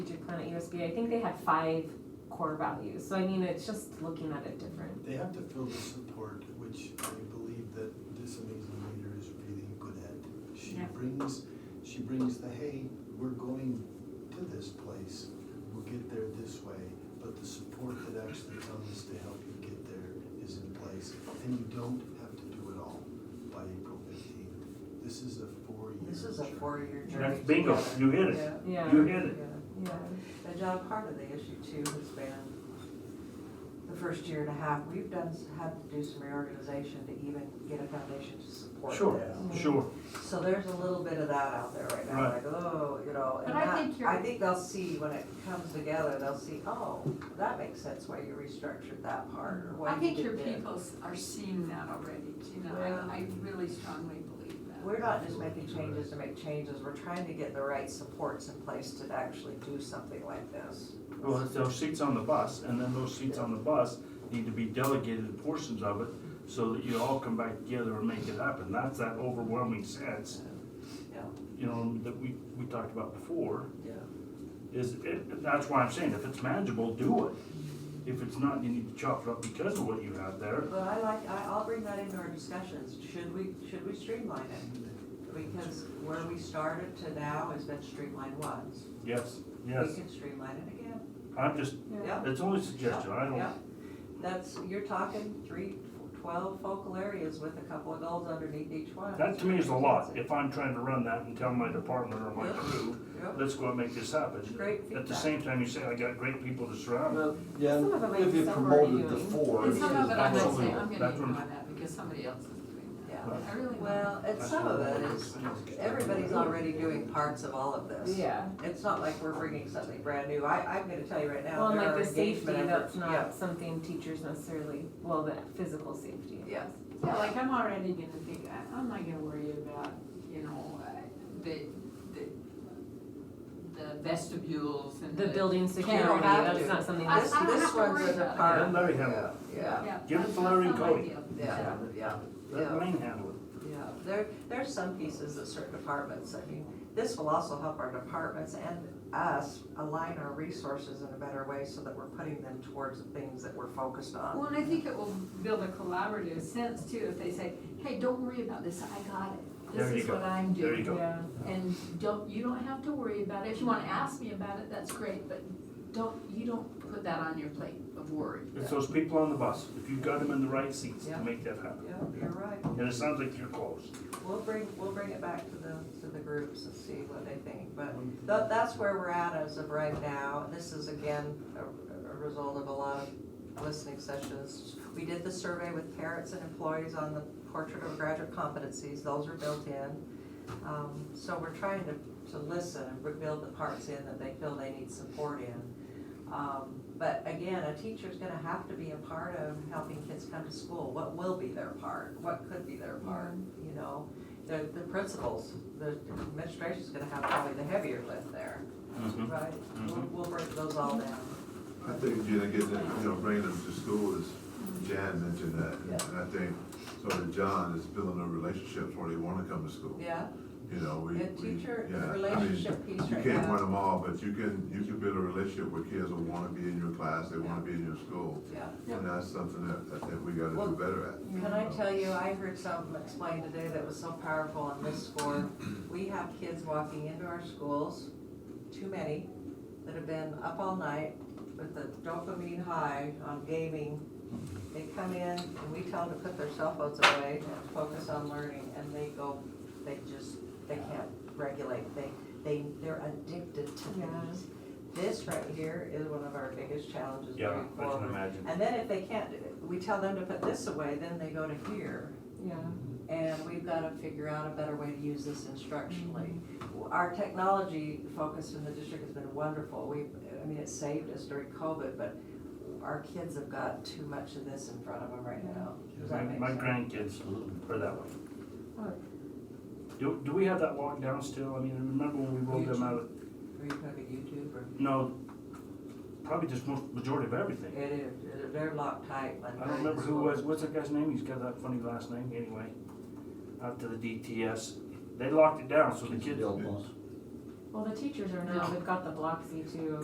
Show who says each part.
Speaker 1: strategic plan at USB, I think they had five core values. So I mean, it's just looking at it different.
Speaker 2: They have to fill the support, which I believe that this amazing leader is really good at. She
Speaker 1: Yeah.
Speaker 2: brings, she brings the, hey, we're going to this place, we'll get there this way, but the support that actually comes to help you get there is in place, and you don't have to do it all by April fifteenth. This is a four-year.
Speaker 3: This is a
Speaker 2: journey.
Speaker 3: four-year journey.
Speaker 4: That's bingo,
Speaker 3: together.
Speaker 4: you hit it,
Speaker 3: Yeah,
Speaker 1: Yeah,
Speaker 4: you hit it.
Speaker 3: yeah.
Speaker 1: yeah,
Speaker 3: And John, part of the issue too has been the first year and a half, we've done, had to do some reorganization to even get a foundation to support
Speaker 4: Sure,
Speaker 3: this.
Speaker 4: sure,
Speaker 3: So there's a little bit of that out there right now,
Speaker 4: Right.
Speaker 3: like, oh, you know, and
Speaker 5: But I
Speaker 3: that,
Speaker 5: think you're-
Speaker 3: I think they'll see when it comes together, they'll see, oh, that makes sense why you restructured that part or why
Speaker 5: I
Speaker 3: you
Speaker 5: think
Speaker 3: did
Speaker 5: your
Speaker 3: this.
Speaker 5: people s- are seeing that already, Gina,
Speaker 3: Yeah.
Speaker 5: I, I really strongly believe that.
Speaker 3: We're not just making changes to make changes, we're trying to get the right supports in place to actually do something like this.
Speaker 4: well, it's those seats on the bus, and then those seats on the bus need to be delegated portions of it, so that you all come back together and make it happen, that's that overwhelming sense,
Speaker 3: Yeah,
Speaker 4: you know, that we, we talked about before,
Speaker 3: yeah.
Speaker 4: is, it, that's why I'm saying, if it's manageable, do it. If it's not, you need to chop it up because of what you have there,
Speaker 3: But I like, I, I'll bring that into our discussions, should we, should we streamline it? Because where we started to now has been streamlined once.
Speaker 4: yes,
Speaker 3: We
Speaker 4: yes,
Speaker 3: can streamline it again.
Speaker 4: I'm just,
Speaker 1: yeah.
Speaker 3: Yeah.
Speaker 4: it's only a suggestion, I
Speaker 3: Yeah.
Speaker 4: don't,
Speaker 3: That's, you're talking three, twelve focal areas with a couple of goals underneath each one.
Speaker 4: that to me is a lot, if I'm trying to run that and tell my department or my
Speaker 3: Yep.
Speaker 4: crew,
Speaker 3: Yep.
Speaker 4: let's go and make this happen.
Speaker 3: Great
Speaker 4: At the
Speaker 3: feedback.
Speaker 4: same time, you say, I got great people to surround.
Speaker 6: Well, Yeah,
Speaker 1: Some of it
Speaker 6: if you
Speaker 1: might be
Speaker 6: promoted the
Speaker 1: self-reviewing.
Speaker 6: four.
Speaker 5: And some of it, I might say,
Speaker 4: Absolutely.
Speaker 5: I'm gonna
Speaker 4: That's what I'm-
Speaker 5: ignore that because somebody else is doing that.
Speaker 3: Yeah.
Speaker 5: I really, well,
Speaker 3: Well, and some of it is, everybody's already doing parts of all of this.
Speaker 1: Yeah,
Speaker 3: It's not like we're bringing something brand new. I, I'm gonna tell you right
Speaker 1: well,
Speaker 3: now,
Speaker 1: and
Speaker 3: there
Speaker 1: like
Speaker 3: are
Speaker 1: the safety,
Speaker 3: engagement
Speaker 1: that's
Speaker 3: efforts.
Speaker 1: not something teachers necessarily, well, the physical safety. I
Speaker 3: Yeah.
Speaker 1: guess.
Speaker 5: yeah, like I'm already gonna think, I, I'm not gonna worry about, you know, uh, the, the, the vestibules and the.
Speaker 1: The building security,
Speaker 3: have
Speaker 1: that's
Speaker 3: to.
Speaker 1: not something
Speaker 5: I-
Speaker 3: Yeah.
Speaker 1: that's
Speaker 3: This,
Speaker 5: I don't
Speaker 3: this
Speaker 5: have to worry
Speaker 3: one's in the
Speaker 5: about it.
Speaker 3: part.
Speaker 4: Let Larry handle it.
Speaker 3: Uh, Yeah,
Speaker 5: Yeah.
Speaker 4: Give it
Speaker 5: that's-
Speaker 4: to Larry
Speaker 5: that's
Speaker 4: and
Speaker 5: not my
Speaker 4: Cody.
Speaker 5: deal.
Speaker 3: yeah, yeah,
Speaker 4: Let Wayne handle it.
Speaker 3: yeah. There, there's some pieces that certain departments, I mean, this will also help our departments and us align our resources in a better way so that we're putting them towards the things that we're focused on.
Speaker 5: Well, and I think it will build a collaborative sense too, if they say, hey, don't worry about this, I got it.
Speaker 4: There you
Speaker 5: This is
Speaker 4: go.
Speaker 5: what I'm
Speaker 4: There you
Speaker 5: doing.
Speaker 4: go.
Speaker 1: Yeah,
Speaker 5: And don't, you don't have to worry about it. If you wanna ask me about it, that's great, but don't, you don't put that on your plate of worry.
Speaker 4: It's those people on the bus, if you've got them in the right seats to
Speaker 3: Yeah.
Speaker 4: make that happen.
Speaker 3: Yeah, you're right.
Speaker 4: And it sounds like you're close.
Speaker 3: We'll bring, we'll bring it back to the, to the groups and see what they think, but tha- that's where we're at as of right now. This is again, a, a result of a lot of listening sessions. We did the survey with parents and employees on the portrait of graduate competencies, those are built in. Um, so we're trying to, to listen and build the parts in that they feel they need support in. Um, but again, a teacher's gonna have to be a part of helping kids come to school, what will be their part, what could be their part, you know? the, the principals, the administration's gonna have probably the heavier lift there,
Speaker 4: Mm-hmm.
Speaker 3: right? We'll, we'll break those all down.
Speaker 7: I think, Gina, getting, them, you know, bringing them to school is, Jan mentioned that,
Speaker 3: Yeah.
Speaker 7: and I think, so that John is building a relationship where they wanna come to school,
Speaker 3: Yeah,
Speaker 7: you know, we.
Speaker 3: good
Speaker 7: we-
Speaker 3: teacher,
Speaker 7: yeah, I mean,
Speaker 3: relationship piece
Speaker 7: You
Speaker 3: right
Speaker 7: can't win
Speaker 3: now.
Speaker 7: them all, but you can, you can build a relationship where kids will wanna be in your class, they wanna be in your school,
Speaker 3: Yeah.
Speaker 7: and that's something that, I think we gotta
Speaker 3: Well-
Speaker 7: do better at.
Speaker 3: Can I tell you, I heard something explained today that was so powerful on this score. We have kids walking into our schools, too many, that have been up all night with the dopamine high on gaming. They come in and we tell them to put their cell phones away and focus on learning and they go, they just, they can't regulate. They, they, they're addicted to things. This right here is one of our biggest challenges
Speaker 4: Yeah,
Speaker 3: going
Speaker 4: I can
Speaker 3: forward.
Speaker 4: imagine.
Speaker 3: And then if they can't, we tell them to put this away, then they go to here.
Speaker 1: yeah,
Speaker 3: And we've got to figure out a better way to use this instructionally. Our technology focus in the district has been wonderful. We, I mean, it saved us during COVID, but our kids have got too much of this in front of them right now. Does
Speaker 4: My,
Speaker 3: that make
Speaker 4: my
Speaker 3: sense?
Speaker 4: grandkids are that way.
Speaker 1: What?
Speaker 4: Do, do we have that locked down still? I mean, remember when we rolled them out of,
Speaker 3: Are you talking YouTube or?
Speaker 4: no, probably just most, majority of everything.
Speaker 3: It is, it- they're locked tight. like
Speaker 4: I don't remember who was, what's that guy's name? He's got that funny last name, anyway. Out to the DTS. They locked it down, so the kids,
Speaker 6: Bill Boss.
Speaker 1: Well, the teachers are now,
Speaker 5: No.
Speaker 1: they've got the Bloxy too.